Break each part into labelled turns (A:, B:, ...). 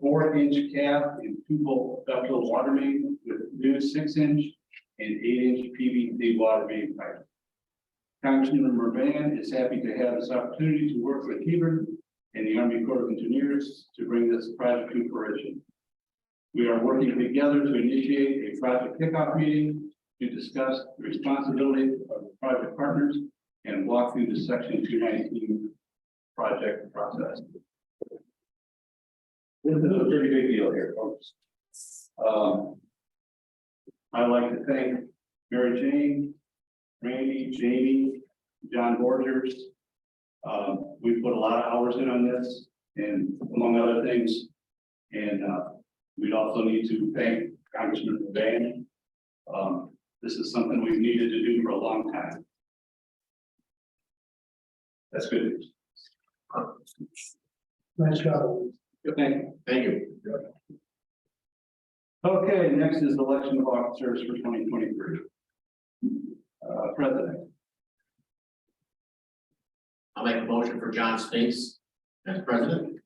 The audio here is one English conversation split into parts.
A: four inch cap and two volt ductile water main with new six inch and eight inch PVC water main pipe. Congressman Mervan is happy to have this opportunity to work with Hebert and the Army Corps of Engineers to bring this project to fruition. We are working together to initiate a project kickoff meeting to discuss the responsibility of the project partners and walk through the section two nineteen project process. This is a pretty big deal here, folks. Um, I'd like to thank Mary Jane, Randy, Jamie, John Borgers. Um, we put a lot of hours in on this and among other things. And, uh, we'd also need to thank Congressman Van. Um, this is something we've needed to do for a long time. That's good news.
B: Nice job.
A: Good thing. Thank you. Okay, next is election of officers for twenty twenty-three. Uh, president,
C: I'll make a motion for John Spinks as president.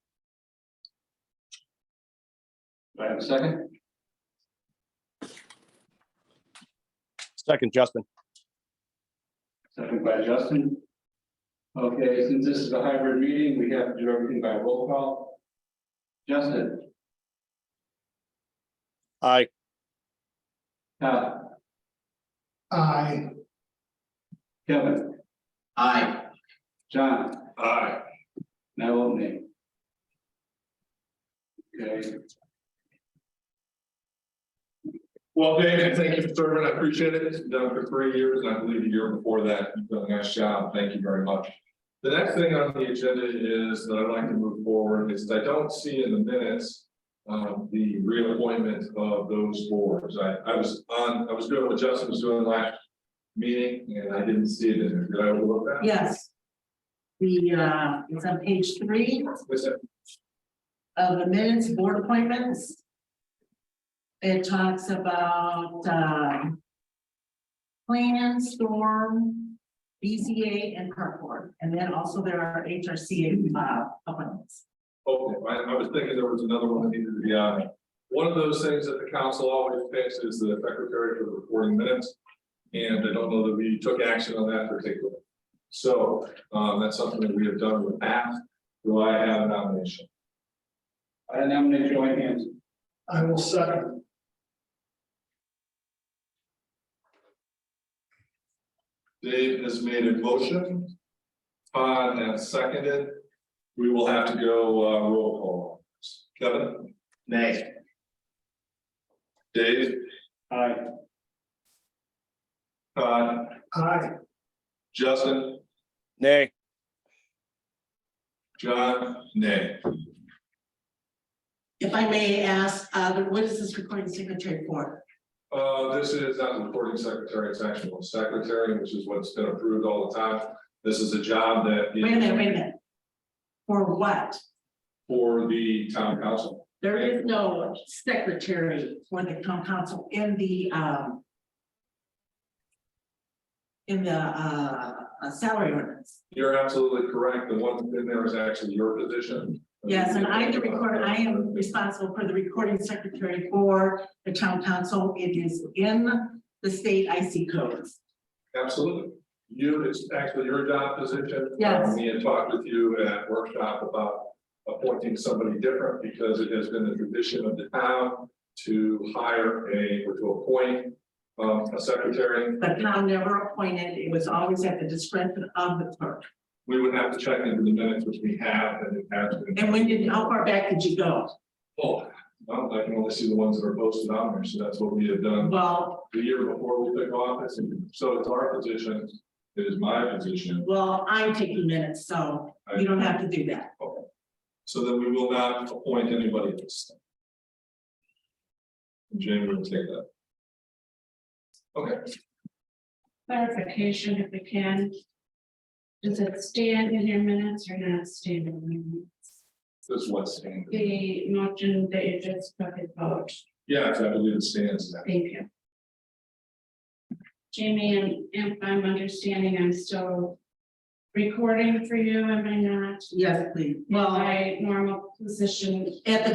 A: do I have a second?
D: Second, Justin.
A: Second by Justin. Okay, since this is a hybrid meeting, we have to do everything by roll call. Justin,
D: Aye.
A: Todd,
B: I,
A: Kevin,
C: Aye.
A: John. Aye. Now, old name. Okay,
E: Well, Dan, and thank you for serving. I appreciate it. It's been done for three years, and I believe the year before that, you've done a nice job. Thank you very much. The next thing on the agenda is that I'd like to move forward is I don't see in the minutes um, the reappointment of those boards. I, I was on, I was doing what Justin was doing last meeting, and I didn't see it in there. Did I overlook that?
F: Yes. The, uh, it's on page three
E: Was it-
F: of the minutes, board appointments. It talks about, um. Plan, storm, BCA and park board, and then also there are HRC, uh, appointments.
E: Oh, I, I was thinking there was another one that needed to be on. One of those things that the council always picks is the secretary for recording minutes. And I don't know that we took action on that particular. So, um, that's something that we have done with that. Do I have a nomination?
A: I nominate Joanne Hanson.
B: I will second.
E: Dave has made a motion. Todd has seconded. We will have to go, uh, roll call. Kevin,
C: Nay.
E: Dave,
A: Aye.
E: Todd,
B: I,
E: Justin.
D: Nay.
E: John, nay.
F: If I may ask, uh, what is this recording signature for?
E: Uh, this is not the recording secretary, it's actual secretary, which is what's been approved all the time. This is a job that
F: Wait a minute,
E: is
F: wait a minute. For what?
E: for the town council.
F: There is no secretary for the town council in the, um. In the, uh, uh, salary ordinance.
E: You're absolutely correct. The one in there is actually your position.
F: Yes, and I, the recorder, I am responsible for the recording secretary for the town council. It is in the state IC codes.
E: Absolutely. You, it's actually your job position.
F: Yes.
E: Um, We had talked with you at workshop about appointing somebody different because it has been the tradition of the town to hire a, or to appoint um, a secretary
F: But town never appointed. It was always at the discretion of the clerk.
E: We would have to check into the minutes, which we have, and it has been.
F: And when did, how far back did you go?
E: Oh, no, I can only see the ones that are posted on there, so that's what we had done
F: Well,
E: the year before we took office, and so it's our position, it is my position.
F: well, I'm taking minutes, so
E: I-
F: you don't have to do that.
E: Okay. So then we will not appoint anybody else. Jamie will take that. Okay,
G: clarification if we can. Does it stand in your minutes or not stand in your minutes?
E: this what's standing.
G: The motion that you just took a vote,
E: Yes, I believe it stands now.
G: thank you. Jamie, and if I'm understanding, I'm still recording for you, am I not?
F: Yes, please.
G: My normal position
F: At the